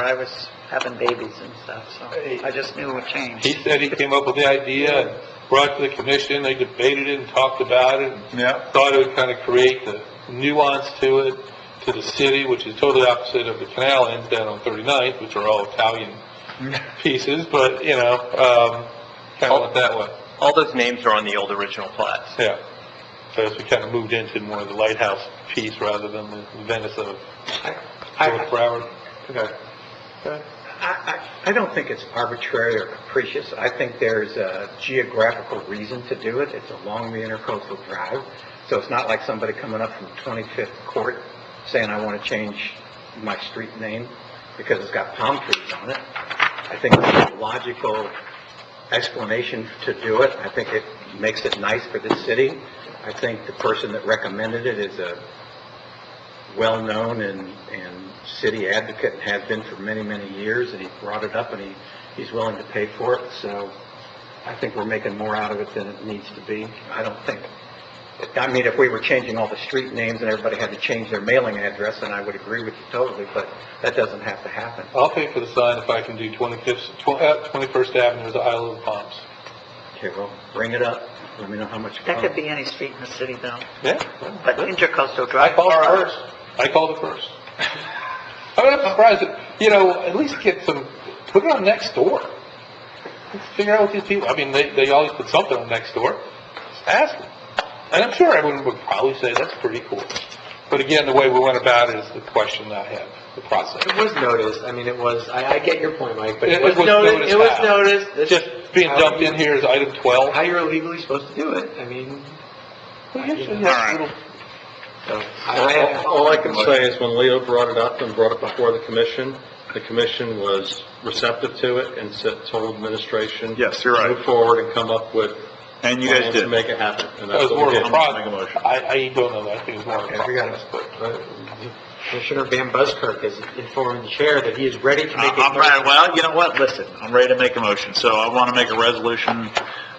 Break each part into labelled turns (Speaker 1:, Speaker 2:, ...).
Speaker 1: I was having babies and stuff, so I just knew it changed.
Speaker 2: He said he came up with the idea and brought it to the commission, they debated it and talked about it, and
Speaker 3: Yeah,
Speaker 2: thought it would kind of create the nuance to it, to the city, which is totally opposite of the canal ends down on 39th, which are all Italian pieces, but, you know, um, kind of went that way,
Speaker 4: All those names are on the old original plats.
Speaker 2: yeah. So as we kind of moved into more of the lighthouse piece rather than the Venice of George
Speaker 5: I,
Speaker 2: Broward. Okay.
Speaker 5: I, I don't think it's arbitrary or capricious. I think there's a geographical reason to do it. It's along the intercoastal drive, so it's not like somebody coming up from 25th Court saying, "I want to change my street name because it's got palm trees on it." I think it's a logical explanation to do it. I think it makes it nice for the city. I think the person that recommended it is a well-known and, and city advocate and has been for many, many years, and he brought it up, and he, he's willing to pay for it, so I think we're making more out of it than it needs to be. I don't think, I mean, if we were changing all the street names and everybody had to change their mailing address, then I would agree with you totally, but that doesn't have to happen.
Speaker 2: I'll pay for the sign if I can do 25th, tw- uh, 21st Avenue, the Isle of Palms.
Speaker 5: Okay, well, bring it up, let me know how much. it
Speaker 1: That could
Speaker 5: costs.
Speaker 1: be any street in the city though,
Speaker 2: Yeah?
Speaker 1: but intercoastal
Speaker 2: I
Speaker 1: drive.
Speaker 2: called it first. I called it first. I mean, I'm surprised that, you know, at least get some, put it on next door. Figure out what these people, I mean, they, they always put something on next door. Just Ask them. And I'm sure everyone would probably say, that's pretty cool. But again, the way we went about it is the question I have, the process.
Speaker 6: It was noticed, I mean, it was, I, I get your point, Mike, but
Speaker 2: It-
Speaker 6: it
Speaker 2: it
Speaker 6: was
Speaker 2: was
Speaker 6: noticed, it was
Speaker 2: noticed how?
Speaker 6: noticed. This is
Speaker 2: Just being
Speaker 6: how
Speaker 2: dumped
Speaker 6: you-
Speaker 2: in here is item 12.
Speaker 6: How you're legally supposed to do it, I mean,
Speaker 2: Well, you should
Speaker 6: All
Speaker 2: have
Speaker 4: right.
Speaker 2: little-
Speaker 6: so, I, I-
Speaker 7: All all I can say is when Leo brought it up and brought it before the commission, the commission was receptive to it and said, told administration.
Speaker 3: Yes, you're right.
Speaker 7: Move forward and come up with.
Speaker 3: and you guys
Speaker 7: plans to
Speaker 3: did.
Speaker 7: Make it happen. And
Speaker 2: That was
Speaker 7: that's
Speaker 2: more
Speaker 7: what
Speaker 2: of a
Speaker 7: we did.
Speaker 3: Make a
Speaker 2: process.
Speaker 3: motion.
Speaker 2: I, I don't know, that. I think it's more of a
Speaker 6: I forgot
Speaker 2: process.
Speaker 6: about, uh, Commissioner Van Buskirk has informed the chair that he is ready to make a...
Speaker 3: I- Uh, I'm ready, well, you know what, listen, I'm ready to make a motion, so I want to make a resolution,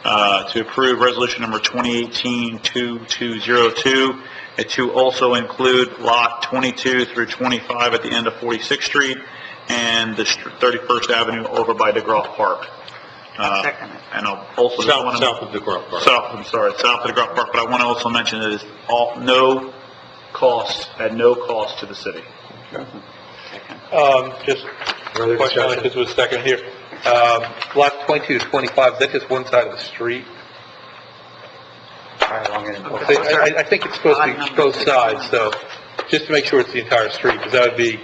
Speaker 3: uh, to approve resolution number 2018-2202, and to also include lot 22 through 25 at the end of 46th Street, and the str- 31st Avenue over by DeGraw Park. Uh,
Speaker 1: Second it.
Speaker 3: And I'll also just want to...
Speaker 7: South, south of the Grove Park.
Speaker 3: South, I'm sorry, south of DeGraw Park, but I want to also mention that it's all, no cost, at no cost to the city.
Speaker 2: Um, just
Speaker 6: Further
Speaker 2: question,
Speaker 6: discussion?
Speaker 2: like this was second here. Um, lot twenty-two to twenty-five, is that just one side of the street?
Speaker 5: All right, long and-
Speaker 2: I, think- I- I think it's supposed to be both sides, so, just to make sure it's the entire street, because that would be,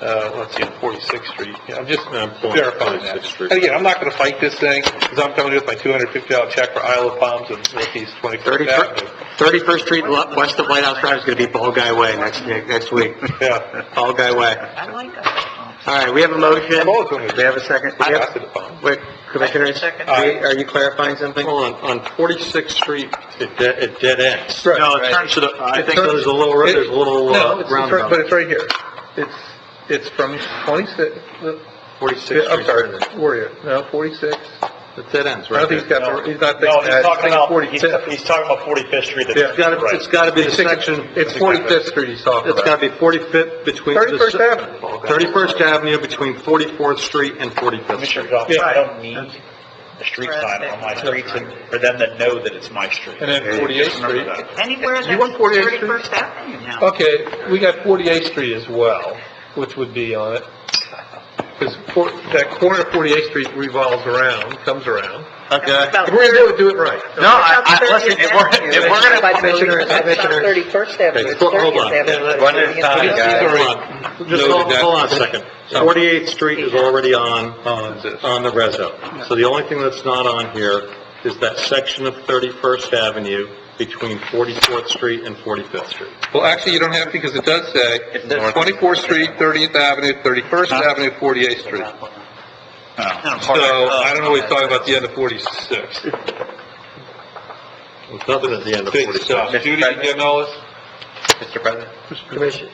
Speaker 2: uh, let's see, Forty-Sixth Street. Yeah, I'm just
Speaker 7: Um,
Speaker 2: verifying that.
Speaker 7: 46th Street.
Speaker 2: And again, I'm not gonna fight this thing, because I'm coming with my two hundred fifty dollar check for Isle of Palms and Northeast Twenty-First Avenue.
Speaker 5: 31st Street, lo- west of White House Drive is going to be Ball Guy Way next, next week.
Speaker 2: Yeah.
Speaker 5: Ball Guy Way.
Speaker 1: I like that.
Speaker 5: All right, we have a motion.
Speaker 2: I'm always going
Speaker 5: We have a second. We have-
Speaker 2: to the Palms.
Speaker 5: Wait, Commissioner,
Speaker 1: Second.
Speaker 5: are you- are you clarifying something?
Speaker 7: On, on 46th Street, it dead, it dead ends.
Speaker 3: No, it turns to the, I
Speaker 7: I
Speaker 3: think
Speaker 7: think there's a little,
Speaker 2: It-
Speaker 7: there's a little uh,
Speaker 2: No, it's, it's right- but
Speaker 7: roundabout.
Speaker 2: it's right here. It's, it's from twenty-six, the-
Speaker 7: 46th Street.
Speaker 2: I'm sorry, Warrior, no, forty-six.
Speaker 7: It dead ends,
Speaker 2: I
Speaker 7: right
Speaker 2: don't
Speaker 7: there.
Speaker 2: think he's got, the- he's not
Speaker 4: No, he's
Speaker 2: thinking, that.
Speaker 4: talking
Speaker 2: I
Speaker 4: about,
Speaker 2: think
Speaker 4: he's,
Speaker 2: forty-fifth.
Speaker 4: he's talking about 45th Street
Speaker 2: Yeah.
Speaker 4: that's...
Speaker 7: It's gotta,
Speaker 4: Right.
Speaker 7: it's gotta be the
Speaker 2: He's thinking-
Speaker 7: section.
Speaker 2: It's forty-fifth street he's talking
Speaker 7: It's
Speaker 2: about.
Speaker 7: gotta be 45th between. the-
Speaker 2: 31st Avenue.
Speaker 7: 31st Avenue between 44th Street and 45th
Speaker 4: Commissioner's
Speaker 7: Street.
Speaker 4: office,
Speaker 2: Yeah.
Speaker 4: I don't need a street sign on my street for them to know that it's my street.
Speaker 2: And then forty-eighth
Speaker 4: Remember
Speaker 2: street.
Speaker 4: that.
Speaker 1: Anywhere that's
Speaker 2: want 48th Street?
Speaker 1: 31st Avenue now.
Speaker 2: Okay, we got forty-eighth street as well, which would be on it. Because that corner of forty-eighth street revolves around, comes around.
Speaker 3: Okay.
Speaker 2: If we're gonna do it, do it right.
Speaker 3: No, I, I, listen, if we're, if we're gonna,
Speaker 5: Commissioner, Commissioner.
Speaker 1: Thirty-first Avenue,
Speaker 7: Okay, hold on.
Speaker 1: Thirtieth Avenue.
Speaker 3: One at a time,
Speaker 1: Yeah.
Speaker 3: guys.
Speaker 7: Hold on. Just hold hold on a second. 48th Street is already on, on, on the reso. So the only thing that's not on here is that section of 31st Avenue between 44th Street and 45th Street.
Speaker 2: Well, actually, you don't have, because it does say twenty-fourth street, thirtieth Avenue, thirty-first Avenue, forty-eighth street. So, I don't know what he's talking about the end of forty-six.
Speaker 7: There's nothing at the end of 46th.
Speaker 2: Judy, you getting all this?
Speaker 4: Mr. President?
Speaker 6: Commissioner,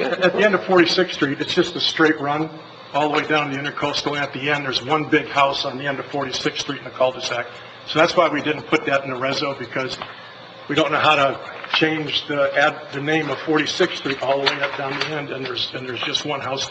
Speaker 8: At at the end of 46th Street, it's just a straight run all the way down to the intercoastal, and at the end, there's one big house on the end of 46th Street in the cul-de-sac. So that's why we didn't put that in the reso, because we don't know how to change the, add the name of 46th Street all the way up down the end, and there's, and there's just one house